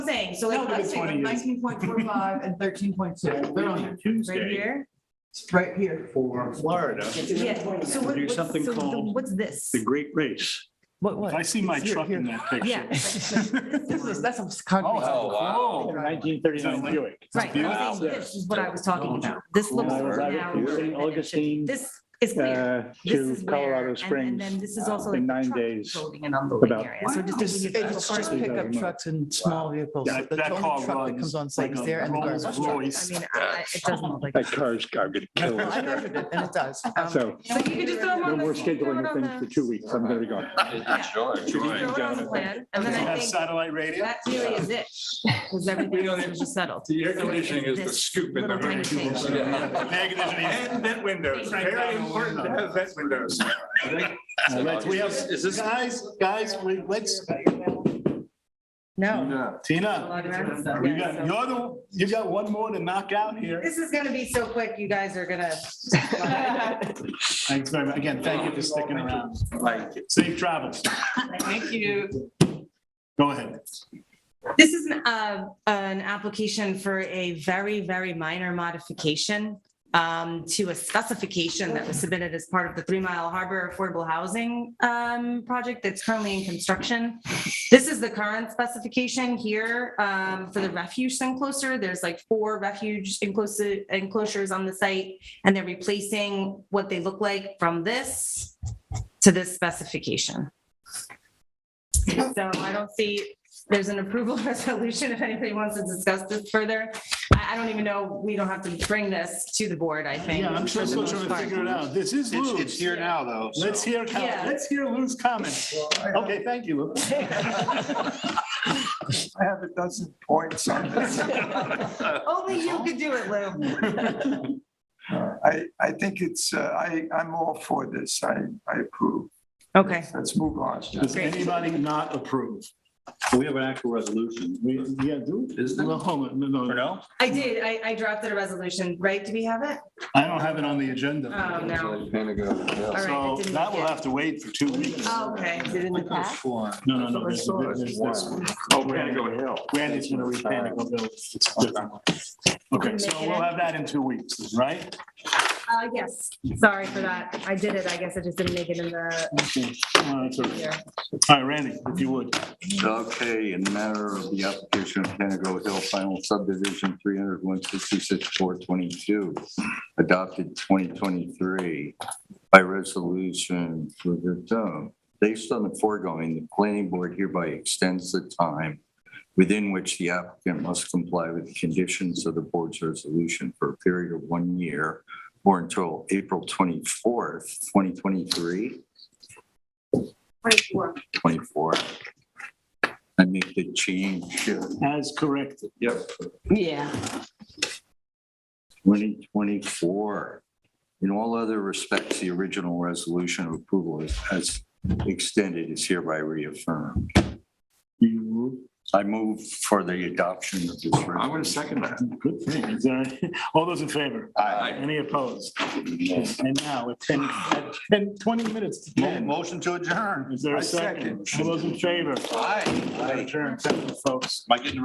I'm saying, so No, like, but let's it's take funny is- nineteen point four five and thirteen point two, Yeah, right they're on Tuesday here. right here. For Florida, Yeah, so what- Do what's, something so the- called what's this? The Great Race. What, If I what? see my Here, truck in here. that Yeah. picture. This is, that's a concrete. Oh, wow. Nineteen thirty-nine Buick. Right, I'm Wow. saying this is what I was talking about. This looks Oh, I was now. out of St. Augustine, This is clear. uh, This is to where- Colorado and- And Springs. uh, then this is also like. in the nine truck days Loading and unloading about- area. So just. Just, leave it it's alone. just pickup trucks and small vehicles. That- The that only car truck that runs comes on site like is a there and the Rolls garbage truck. Royce. I mean, I- I- it doesn't look like. That car's, I'm gonna kill Well, I us. measured it and it does. So Um, So you could just throw them no on the. more you could throw it scheduling of on things for the- two weeks. I'm gonna be gone. Yeah. Sure. Throw it on the plan, and then I Have think satellite radio? that really is it, because everything else was just settled. The air So it's conditioning is the this scoop in the little tiny room. thing. And vent windows, very important to have vent windows. Uh, let's- We have, Is this- guys, guys, we, let's, No. Tina, you got, you're the, you got one more to knock out here. This is gonna be so quick, you guys are gonna. Thanks very much. Again, thank you for sticking around. Like, Safe travels. Thank you. Go ahead. This is an, uh, an application for a very, very minor modification um, to a specification that was submitted as part of the Three Mile Harbor Affordable Housing um, project that's currently in construction. This is the current specification here um, for the refuge enclosure. There's like four refuge enclosure- enclosures on the site, and they're replacing what they look like from this to this specification. So I don't see there's an approval resolution if anybody wants to discuss this further. I, I don't even know, we don't have to bring this to the board, I think. Yeah, I'm sure for the we'll most try to part. figure it out. This is It's, Lou's. it's here now, though. so- Let's hear, com- Yeah. let's hear Lou's comments. Okay, thank you, Lou. I have a dozen points on this. Uh, Only you could do it, Lou. I, I think it's, uh, I, I'm all for this. I, I approve. Okay. Let's move on. Does anybody not approve? We have an actual resolution. We, yeah, do. Is there? Well, hold on, no, no, Or no. no? I did, I, I drafted a resolution, right? Do we have it? I don't have it on the agenda. Oh, no. All right, I So didn't that will get it. have to wait for two weeks. Oh, Okay. No, no, no. there's- there's this one. Oh, Panago Hill. Randy's gonna read Panago Bill. It's a different one. Okay, so we'll have that in two weeks, right? Uh, yes, sorry for that. I did it. I guess I just didn't make it in the Okay. All right, so- here. all right, Randy, if you would. Okay, in matter of the application of Panago Hill Final Subdivision 300, 166, 422, adopted 2023 by resolution for the town. Based on the foregoing, the planning board hereby extends the time within which the applicant must comply with the conditions of the board's resolution for a period of one year or until April 24th, 2023, Twenty-four. 24. I make the change. uh, As corrected. Yeah. 2024. In all other respects, the original resolution of approval is- as extended is hereby reaffirmed. I move for the adoption of I'm this. resolution. gonna second that. Good thing. Is there any- All those in favor? Aye. Any opposed? And now, at 10, at 10, 20 minutes to Mo- 10. Motion to adjourn. Is there I a second. second? All those in favor? Aye. Adjourn, Thank you, folks. Am I getting